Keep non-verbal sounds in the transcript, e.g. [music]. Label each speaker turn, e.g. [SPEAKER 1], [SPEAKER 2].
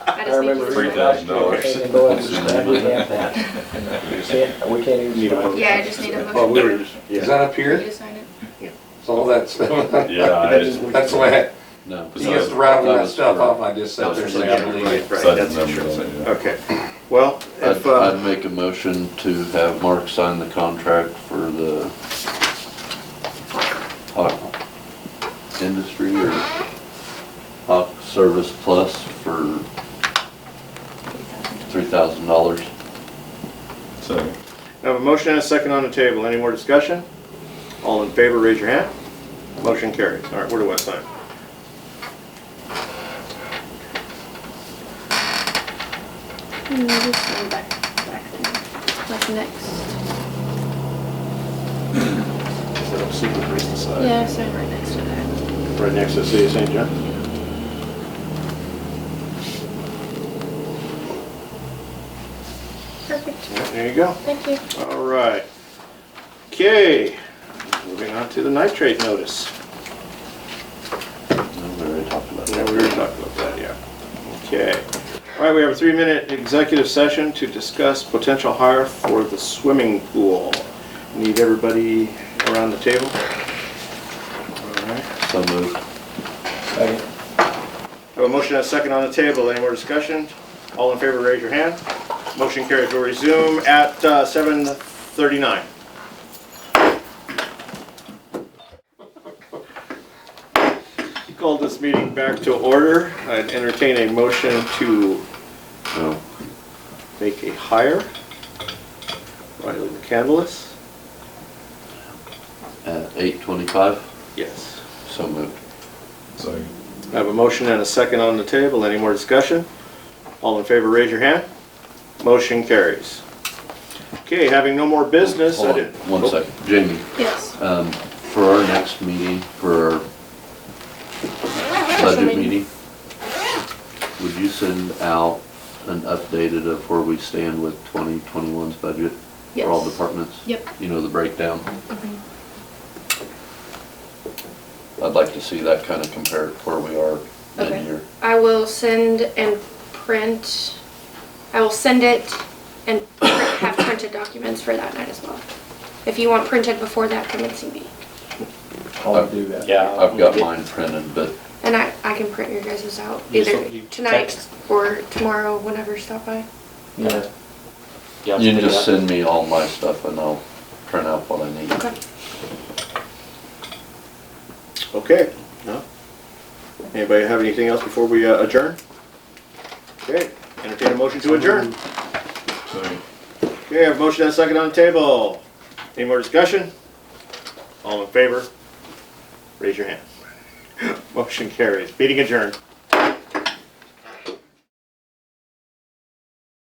[SPEAKER 1] I
[SPEAKER 2] I
[SPEAKER 1] just need
[SPEAKER 2] remember
[SPEAKER 1] you
[SPEAKER 2] reading
[SPEAKER 1] to.
[SPEAKER 2] that.
[SPEAKER 3] $3,000. dollars.
[SPEAKER 2] Okay.
[SPEAKER 4] And go ahead and say, we have that. We can't- We can't even.
[SPEAKER 2] Need a
[SPEAKER 4] start.
[SPEAKER 2] vote.
[SPEAKER 1] Yeah, I just need a motion.
[SPEAKER 2] Well, Oh, we were just,
[SPEAKER 5] Is
[SPEAKER 2] yeah,
[SPEAKER 5] that up
[SPEAKER 1] You
[SPEAKER 5] here?
[SPEAKER 1] to sign it?
[SPEAKER 5] So all that's, [laughs] that's
[SPEAKER 3] [laughs] Yeah, I
[SPEAKER 2] That
[SPEAKER 3] just,
[SPEAKER 2] is-
[SPEAKER 5] the way,
[SPEAKER 6] No.
[SPEAKER 5] I- he gets to rattle that stuff off, I just
[SPEAKER 6] That
[SPEAKER 5] sat
[SPEAKER 6] was
[SPEAKER 5] there
[SPEAKER 6] for
[SPEAKER 5] saying, I
[SPEAKER 6] the-
[SPEAKER 5] believe it.
[SPEAKER 2] right, that's
[SPEAKER 3] Sudden
[SPEAKER 2] insurance.
[SPEAKER 3] numbers on
[SPEAKER 2] Okay, well,
[SPEAKER 6] I'd,
[SPEAKER 2] if, uh,
[SPEAKER 6] I'd make a motion to have Mark sign the contract for the Hawk Industry or Hawk Service Plus for three thousand dollars.
[SPEAKER 3] so,
[SPEAKER 2] I have a motion and a second on the table, any more discussion? All in favor, raise your hand. Motion carries, all right, where do I sign?
[SPEAKER 1] Mm, just go back, back there. Like next,
[SPEAKER 2] Is that a secret reason sign?
[SPEAKER 1] yeah, sign right next to that.
[SPEAKER 2] Right next to the City of St. John?
[SPEAKER 1] Perfect,
[SPEAKER 2] Yeah, There you go.
[SPEAKER 1] thank you.
[SPEAKER 2] All right. Okay, moving on to the nitrate notice.
[SPEAKER 6] No, We already talked about
[SPEAKER 2] Yeah,
[SPEAKER 6] that.
[SPEAKER 2] we were talking about that, yeah. Okay. All right, we have a three-minute executive session to discuss potential hire for the swimming pool. Need everybody around the table? All right.
[SPEAKER 6] So moved.
[SPEAKER 4] Second.
[SPEAKER 2] Have a motion and a second on the table. Any more discussion? All in favor, raise your hand. Motion carries. We'll resume at uh, 7:39. Call this meeting back to order. I'd entertain a motion to uh,
[SPEAKER 6] No.
[SPEAKER 2] make a hire. Riley McCandless?
[SPEAKER 6] At eight twenty-five,
[SPEAKER 2] Yes.
[SPEAKER 6] so moved.
[SPEAKER 3] so,
[SPEAKER 2] I have a motion and a second on the table. Any more discussion? All in favor, raise your hand. Motion carries. Okay, having no more business, I
[SPEAKER 6] Hold on,
[SPEAKER 2] did. Oh,
[SPEAKER 5] Oh.
[SPEAKER 6] one second. Jamie,
[SPEAKER 1] Yes.
[SPEAKER 6] um, for our next meeting, for our
[SPEAKER 1] Special
[SPEAKER 6] budget meeting, would you send out an updated of where we stand with 2021's budget for all
[SPEAKER 1] Yes.
[SPEAKER 6] departments?
[SPEAKER 1] Yep.
[SPEAKER 6] You know, the breakdown? I'd like to see that kind of compared where we are
[SPEAKER 1] Okay.
[SPEAKER 6] mid-year.
[SPEAKER 1] I will send and print, I will send it and print- have printed documents for that night as well. If you want printed before that commencing meeting.
[SPEAKER 4] I'll do that.
[SPEAKER 3] yeah.
[SPEAKER 6] I've got mine printed, but
[SPEAKER 1] And I, I can print your guys' out
[SPEAKER 3] You just
[SPEAKER 1] either
[SPEAKER 3] don't- you
[SPEAKER 1] tonight
[SPEAKER 3] text?
[SPEAKER 1] or tomorrow, whenever you stop by.
[SPEAKER 4] Yeah.
[SPEAKER 3] yeah,
[SPEAKER 6] you can just send me all my stuff and I'll print out what I need.
[SPEAKER 1] Okay.
[SPEAKER 2] Okay, no? Anybody have anything else before we uh, adjourn? Okay, entertain a motion to adjourn.
[SPEAKER 3] So.
[SPEAKER 2] Okay, I have a motion and a second on the table. Any more discussion? [gasps] All in favor? Raise your hand. Motion carries. Meeting adjourned.